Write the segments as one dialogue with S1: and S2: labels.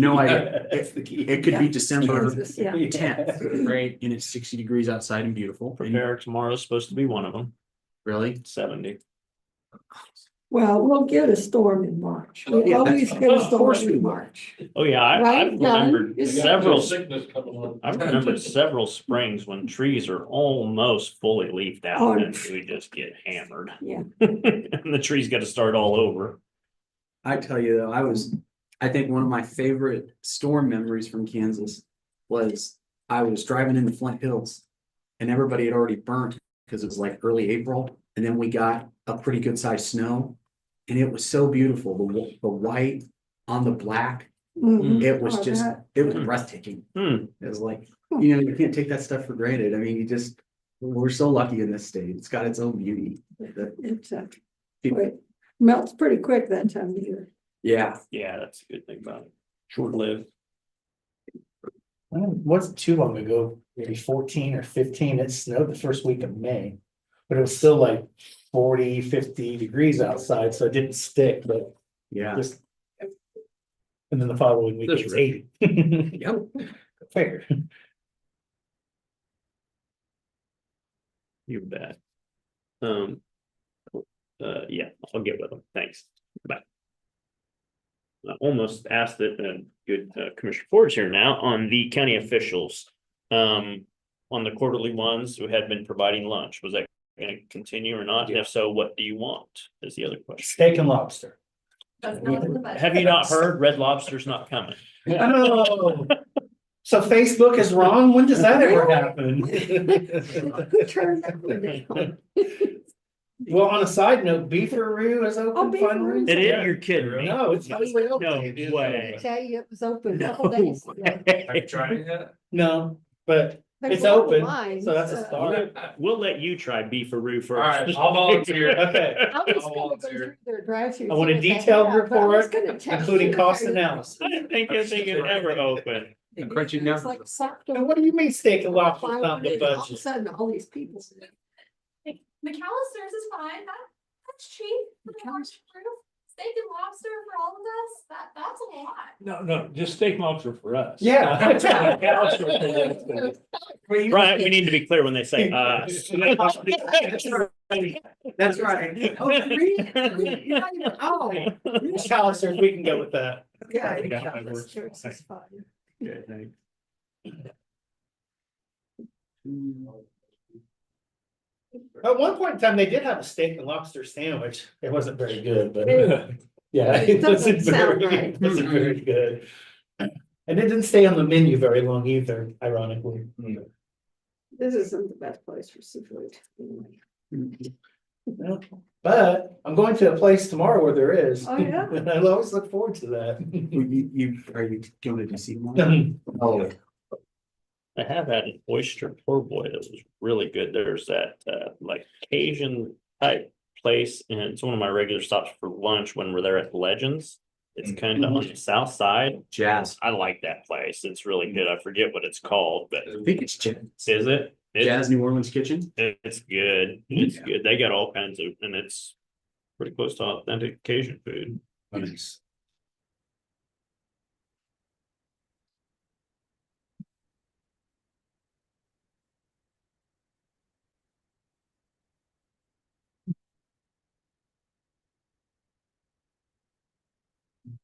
S1: No, I,
S2: That's the key.
S1: it could be December
S3: Yeah.
S1: tenth, right? And it's sixty degrees outside and beautiful. And
S2: Prepare tomorrow's supposed to be one of them,
S1: Really?
S2: seventy.
S3: Well, we'll get a storm in March. We
S1: Yeah, that's-
S3: always get a
S2: Of
S3: storm
S2: course we
S3: in
S2: will.
S3: March.
S2: Oh, yeah, I, I've
S3: Right, Don?
S2: remembered
S3: Is-
S2: several,
S4: Sickness coming on.
S2: I've remembered several springs when trees are almost fully leafed
S3: Oh.
S2: out and we just get hammered.
S3: Yeah.
S2: And the tree's gotta start all over.
S1: I tell you though, I was, I think one of my favorite storm memories from Kansas was I was driving in the Flint Hills. And everybody had already burnt because it was like early April and then we got a pretty good sized snow. And it was so beautiful, the, wh- the white on the black,
S2: Mm-hmm.
S3: Mhm.
S1: it was
S3: Oh,
S1: just,
S3: that-
S1: it was breathtaking.
S2: Hmm,
S1: It was like, you know, you can't take that stuff for granted. I mean, you just, we're so lucky in this state. It's got its own beauty. That-
S3: It's, uh, it melts pretty quick that time of year.
S1: Yeah.
S2: yeah, that's a good thing about it. Short lived.
S5: Well, It wasn't too long ago, maybe fourteen or fifteen, it snowed the first week of May. But it was still like 40, 50 degrees outside, so it didn't stick, but
S1: Yeah.
S5: just. And then the following week it was eighty.
S1: Yep.
S5: Fair.
S2: You bet. Um. Uh, yeah, I'll get with them. Thanks. Bye. I almost asked that, uh, good, uh, Commissioner Ford's here now on the county officials. Um, on the quarterly ones who had been providing lunch, was that gonna continue or not? And If so, what do you want? Is the other question.
S5: Steak and lobster.
S2: Have you not heard? Red Lobster's not coming.
S5: Oh. So Facebook is wrong? When does that ever happen?
S3: Who turned that one down?
S5: Well, on a side note, Beefaroo is
S3: Oh,
S5: open
S3: Beefaroo's
S5: finally.
S3: open.
S2: It is, you're kidding me.
S5: No, it's totally open.
S2: No way.
S3: Tell you it was open. a couple
S2: No
S3: days ago.
S4: Have you
S2: way.
S4: tried it yet?
S5: No, but
S3: They
S5: It's
S3: were all
S5: open,
S3: mine,
S5: so that's a
S3: so-
S5: start.
S2: We'll let you try beefaroo first.
S4: All right, I'll volunteer.
S5: okay.
S3: I was
S4: I'll
S3: gonna go
S4: volunteer.
S3: through their drive-thru.
S5: I want a
S3: see what they
S5: detailed
S3: have, but I was
S5: report,
S3: gonna text
S5: including
S3: you
S5: cost
S3: later.
S5: analysis.
S2: I didn't think anything had ever opened.
S1: And crunchy
S3: It's
S1: numbers.
S3: like socked
S5: And
S3: up.
S5: what do you mean steak and lobster
S3: All
S5: on
S3: of
S5: the
S3: a
S5: budget?
S3: sudden, all these people.
S6: McAllister's is fine, that, that's cheap. for the large group. Steak and lobster for all of us, that, that's a lot.
S4: No, no, just steak lobster for us.
S5: Yeah.
S2: Right, we need to be clear when they say uh, us.
S1: That's right.
S3: Oh, really? Really? You're not even- Oh,
S5: Callister, we can go with that.
S3: yeah.
S4: I got my
S3: McAllister's
S4: words.
S3: is fine.
S5: At one point in time, they did have a steak and lobster sandwich. It wasn't very good, but yeah,
S3: It
S5: it
S3: doesn't
S5: wasn't
S3: sound
S5: very,
S3: right.
S5: it wasn't very good. And it didn't stay on the menu very long either, ironically.
S3: This isn't the best place for seafood. anyway.
S5: But I'm going to a place tomorrow where there is.
S3: Oh, yeah?
S5: And I always look forward to that.
S1: You, you, are you going to see one?
S5: Mm-hmm.
S1: Oh,
S2: I have had an oyster poor boy that was really good. There's that uh like Cajun type place and it's one of my regular stops for lunch when we're there at Legends. It's kind of on the south side.
S1: jazz.
S2: I like that place. It's really good. I forget what it's called, but
S1: I think it's jazz.
S2: is Mm-hmm. it? It's
S1: Jazz New Orleans Kitchen.
S2: It's good. It's good. They got all kinds of, and it's pretty close to authentic Cajun food.
S1: Nice.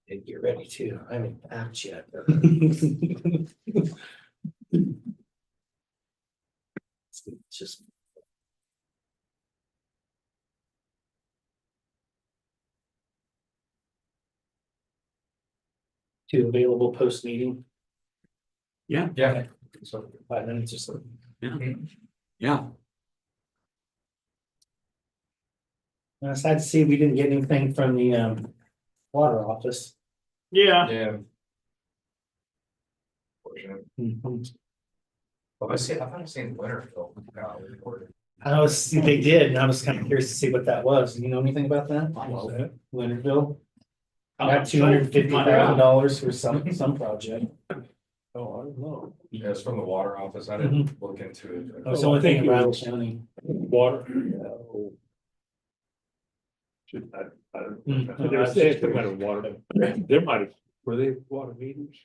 S5: And get ready to, I haven't apt yet. Just. Two available post meeting,
S4: Yeah.
S5: so five minutes or so.
S3: Mm-hmm.
S1: Yeah.
S5: And I sad to see we didn't get anything from the um water office.
S2: Yeah.
S4: Yeah. I see, I haven't seen Winterfell. uh,
S5: I was, they did, and I was kind of curious to see what that was. Do you know anything about that? Oh,
S4: Well,
S5: Leonardville?
S2: I'm
S5: Got
S2: not
S5: two
S2: sure.
S5: hundred and fifty thousand dollars for some, some project.
S4: Oh, I don't know. Yeah, it's from the water office. I didn't look into it.
S5: I was only thinking Rattle County.
S4: Water.
S5: Mm. Mm-hmm.
S4: They were saying something about water. There might have, were they water meters?